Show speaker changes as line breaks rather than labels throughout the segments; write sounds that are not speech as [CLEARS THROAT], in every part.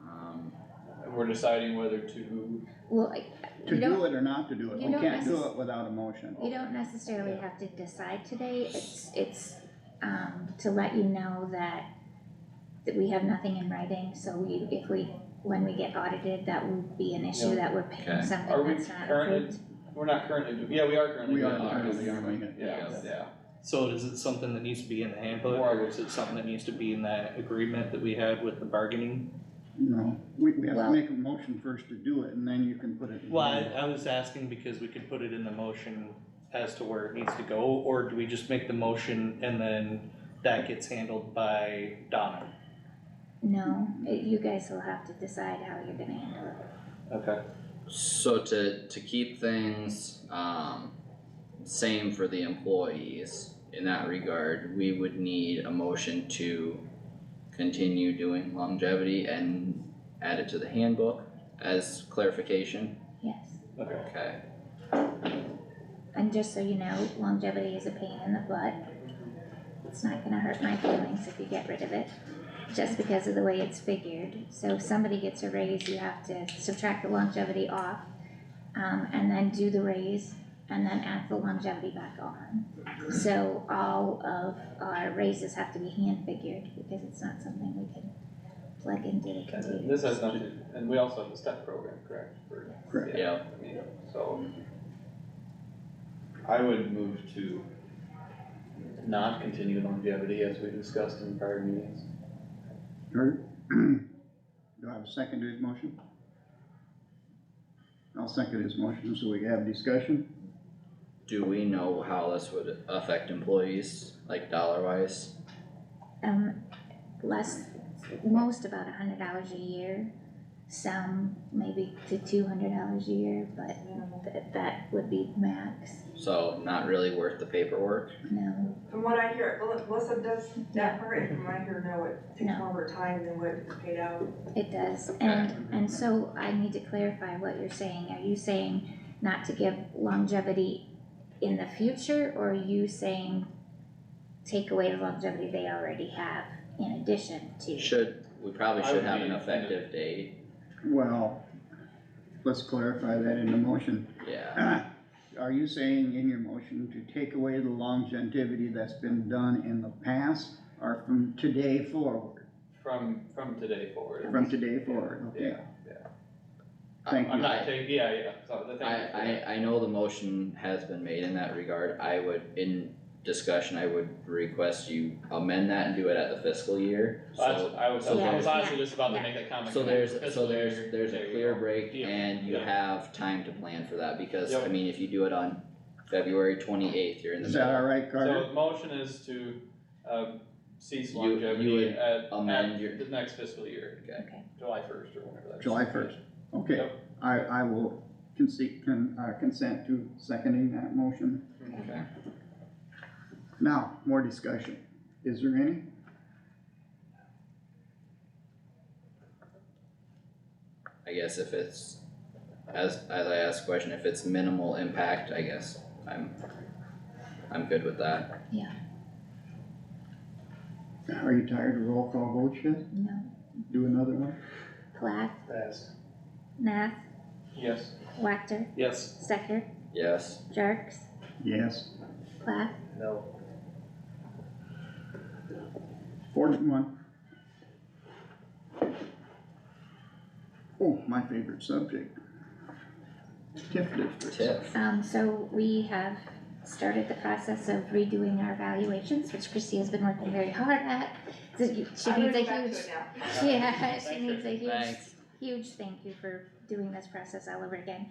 Um, we're deciding whether to,
Well, I-
To
you
do
don't,
it or not to do it,
you
we
don't
can't do
necess-
it without a motion.
you don't necessarily
Yeah.
have to decide today, it's, it's, um, to let you know that that we have nothing in writing, so we, if we, when we get audited, that will be an issue
Yeah.
that we're
Okay.
paying something
Are we
that's not
current?
approved.
we're not currently, do- yeah, we are currently.
We are
doing it.
currently doing it.
Yeah,
Yes.
yeah,
So is it something that needs to be in the handbook, or is it something that needs to be in that agreement that we had with the bargaining?
No, we, we have to
Well-
make a motion first to do it, and then you can put it. in.
Well, I, I was asking because we could put it in the motion as to where it needs to go, or do we just make the motion and then that gets handled by Donna?
No, it- you guys will have to decide how you're gonna handle it.
Okay.
So to, to keep things, um, same for the employees in that regard, we would need a motion to continue doing longevity and add it to the handbook as clarification,
Yes,
Okay.
okay?
and just so you know, longevity is a pain in the butt. It's not gonna hurt my feelings if you get rid of it, just because of the way it's figured. So if somebody gets a raise, you have to subtract the longevity off, um, and then do the raise, and then add the longevity back on. So all of our raises have to be hand figured, because it's not something we can plug into the
and
computer.
this has nothing, and we also have the step program, correct? for-
Correct.
Yeah,
I mean, so. I would move to not continue longevity as we discussed in prior meetings.
Or- [CLEARS THROAT] Do I have a second to his motion? I'll second his motion, so we can have discussion.
do we know how this would affect employees, like dollar wise?
um, less, most about a hundred dollars a year. Some maybe to two hundred dollars a year, but th- that would be max,
So not really worth the paperwork,
no,
From what I hear, Mel- Melissa does
Yeah.
that part, and from what I hear now, it takes
No.
longer time than what is paid out.
it does. And, and so I need to clarify what you're saying, are you saying not to give longevity in the future, or are you saying take away the longevity they already have in addition to?
should, we probably
I
should
would
have an
be-
effective date,
Well, let's clarify that in the motion. [CLEARS THROAT]
yeah.
Are you saying in your motion to take away the longevity that's been done in the past, or from today forward?
From, from today forward.
From today forward, okay.
Yeah,
Thank
I'm
you.
not taking, yeah, yeah, so the thing.
I, I, I know the motion has been made in that regard, I would, in discussion, I would request you amend that and do it at the fiscal year,
I was,
so.
I was, I
so
was
there's-
honestly just about to
yeah.
make that comment.
So there's, so
Fiscal year,
there's, there's
there
a
you
clear
go.
break
Deal.
and you
Yeah.
have time to plan for that, because, I
Yep.
mean, if you do it on February twenty-eighth, you're in the
Is that all
middle.
right,
So
Carter?
the motion is to, uh, cease
You- you
longevity
would
at,
amend your-
at the next fiscal year,
Okay,
July first or whenever that is.
July first. Okay,
Yep.
I, I will consent, con- uh, consent to seconding that motion.
Okay,
Now, more discussion. Is there any?
I guess if it's, as, as I asked the question, if it's minimal impact, I guess, I'm, I'm good with that.
Are you tired of roll call votes yet?
no,
Do another one?
Plath,
Yes.
Nath,
Yes.
Wactor,
Yes.
Stecker,
Yes,
Jerks,
Yes.
Plath,
No.
Four to one. Oh, my favorite subject. TIF districts.
tip.
Um, so we have started the process of redoing our valuations, which Christie has been working very hard at. So you- She
I'm
needs a
gonna go back to
huge,
it
[LAUGHS]
now.
yeah, she
Thank
needs a huge,
Thanks.
huge thank you for doing this process all over again.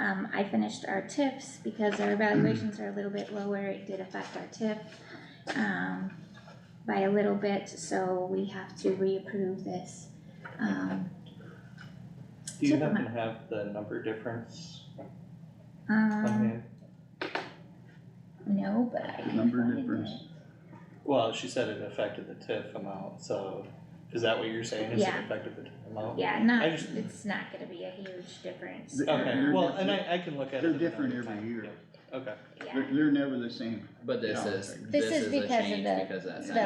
Um, I finished our TIFs because our valuations are a little bit lower, it did affect our TIF, um, by a little bit, so we have to reapprove this. Um,
Do you
Check them
happen to have the number difference on
um,
hand?
no, but I can
Number
find
difference.
it.
Well, she said it affected the TIF amount, so is that what you're saying, is it
Yeah.
affected the TIF amount?
Yeah, not,
I just-
it's not gonna be a huge difference.
The-
Okay,
They're
well,
different.
and I, I can look at it.
They're
another
different every
time,
year.
yeah. Okay.
Yeah.
They're, they're never the same.
But this
Yeah.
is,
This
this is
is
a
because of
change
the-
because of that
the
sentence.